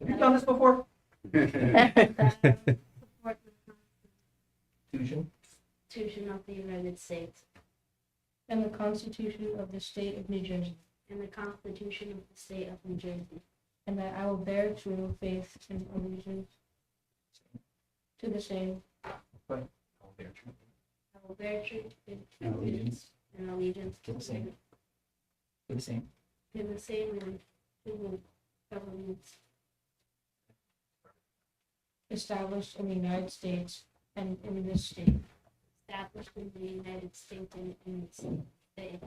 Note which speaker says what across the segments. Speaker 1: Have you done this before?
Speaker 2: Support the
Speaker 1: Fusion.
Speaker 2: Constitution of the United States. And the Constitution of the State of New Jersey. And the Constitution of the State of New Jersey. And that I will bear true faith and allegiance to the same. I will bear true faith
Speaker 1: And allegiance.
Speaker 2: and allegiance
Speaker 1: To the same. Do the same.
Speaker 2: To the same and to the governments. Established in the United States and in this state. Established in the United States and in this state.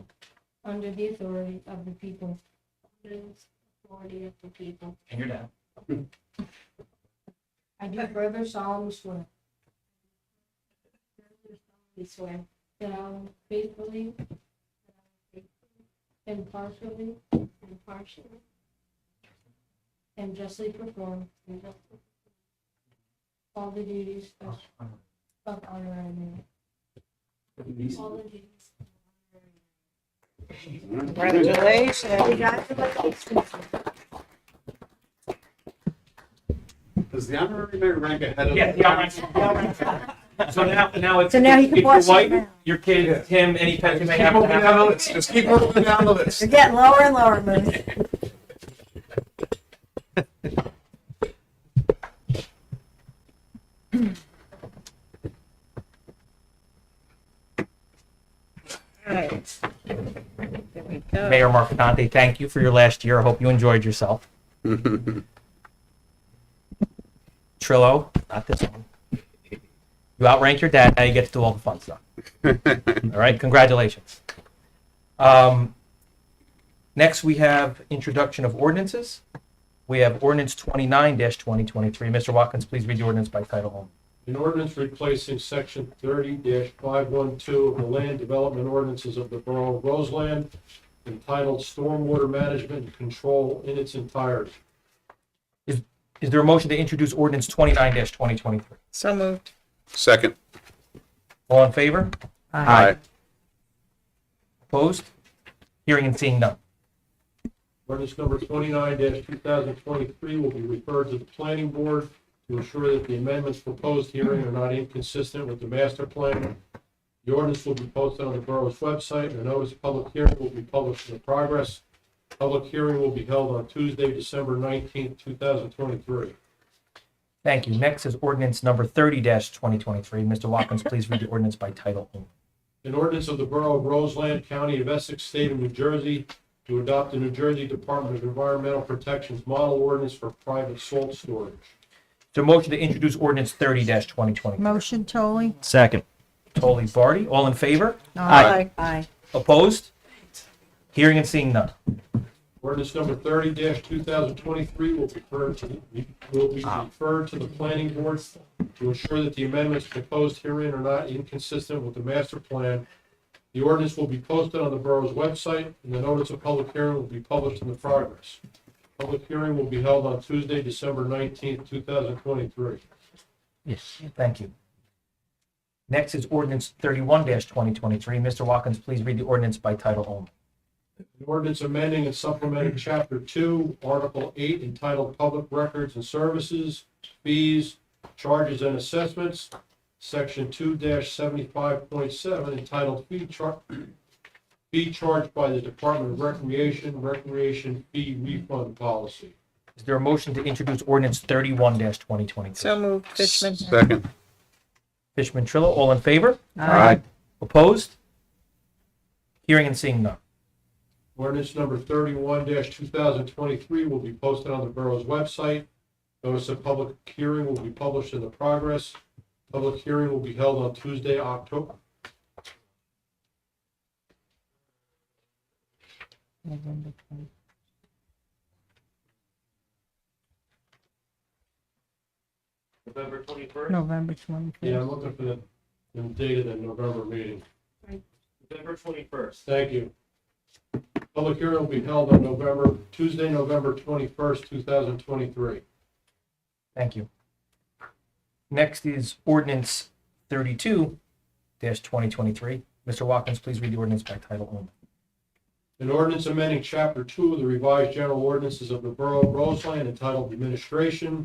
Speaker 2: Under the authority of the people. Under the authority of the people.
Speaker 1: And you're down.
Speaker 2: I do further solemnly swear. Further solemnly swear. That I will faithfully. that I will faithfully, Impartially. Impartially. And justly perform. and justly perform All the duties of of honorary. member. All the duties. of honorary member.
Speaker 3: Does the honorary mayor rank ahead of?
Speaker 1: Yeah, yeah. So now, now it's.
Speaker 4: So now he
Speaker 1: if
Speaker 4: can
Speaker 1: your
Speaker 4: watch it
Speaker 1: wife,
Speaker 4: now.
Speaker 1: Your kids, him, any pet you
Speaker 3: Just
Speaker 1: may
Speaker 3: keep
Speaker 1: have.
Speaker 3: moving down the list, just keep moving down the list.
Speaker 4: You're getting lower and lower, Moose. Alright. There we go.
Speaker 1: Mayor Marcontante, thank you for your last year. I hope you enjoyed yourself. Trillo, not this one. You outrank your dad. Now you get to do all the fun stuff. all right, congratulations. Um, next, we have introduction of ordinances. We have ordinance 29 2023. Mr. Watkins, please read the ordinance by title only.
Speaker 5: An ordinance replacing section thirty five one two of the land development ordinances of the Borough of Roseland entitled Stormwater Management and Control in its entirety.
Speaker 1: Is there a motion to introduce ordinance 29 2023?
Speaker 4: So moved.
Speaker 3: Second.
Speaker 1: All in favor?
Speaker 3: Aye.
Speaker 1: Opposed? Hearing and seeing none.
Speaker 5: Ordinance number twenty-nine two thousand twenty-three will be referred to the planning board to ensure that the amendments proposed herein are not inconsistent with the master plan. The ordinance will be posted on the borough's website, and a notice of public hearing will be published in the progress. Public hearing will be held on Tuesday, December nineteenth, two thousand twenty-three.
Speaker 1: Thank you. Next is ordinance number thirty twenty twenty-three. Mr. Watkins, please read the ordinance by title only.
Speaker 5: An ordinance of the Borough of Roseland, County of Essex, State of New Jersey, to adopt the New Jersey Department of Environmental Protection's model ordinance for private salt storage.
Speaker 1: Is there a motion to introduce ordinance thirty twenty twenty-three?
Speaker 4: Motion, Toley?
Speaker 6: Second.
Speaker 1: Totally Barty, all in favor?
Speaker 6: Aye.
Speaker 4: Aye.
Speaker 1: Opposed? Hearing and seeing none.
Speaker 5: Ordinance number thirty two thousand twenty-three will refer to, the- will be referred to the planning board to ensure that the amendments proposed herein are not inconsistent with the master plan. The ordinance will be posted on the borough's website, and the notice of public hearing will be published in the progress. Public hearing will be held on Tuesday, December nineteenth, two thousand twenty-three.
Speaker 1: Yes. Thank you. Next is ordinance thirty-one twenty twenty-three. Mr. Watkins, please read the ordinance by title only.
Speaker 5: An ordinance amending and supplementing Chapter Two, Article Eight entitled Public Records and Services, Fees, Charges and Assessments, Section two seventy-five point seven entitled Fee Char- Fee Charged by the Department of Recreation, Recreation Fee Refund Policy.
Speaker 1: Is there a motion to introduce ordinance thirty-one twenty twenty-three?
Speaker 4: So moved, Fishman?
Speaker 3: Second.
Speaker 1: Fishman Trillo, all in favor?
Speaker 3: Aye.
Speaker 1: Opposed? Hearing and seeing none.
Speaker 5: Ordinance number thirty-one two thousand twenty-three will be posted on the borough's website. Notice of public hearing will be published in the progress. Public hearing will be held on Tuesday, October, November twenty-first?
Speaker 4: November
Speaker 5: Yeah,
Speaker 4: twenty-fifth.
Speaker 5: I'm looking for the, the date of the November meeting.
Speaker 2: Right.
Speaker 5: November twenty-first. Thank you. Public hearing will be held on November, Tuesday, November twenty-first, two thousand twenty-three.
Speaker 1: Thank you. Next is ordinance thirty-two twenty twenty-three. Mr. Watkins, please read the ordinance by title only.
Speaker 5: An ordinance amending chapter two of the revised general ordinances of the Borough of Roseland entitled Administration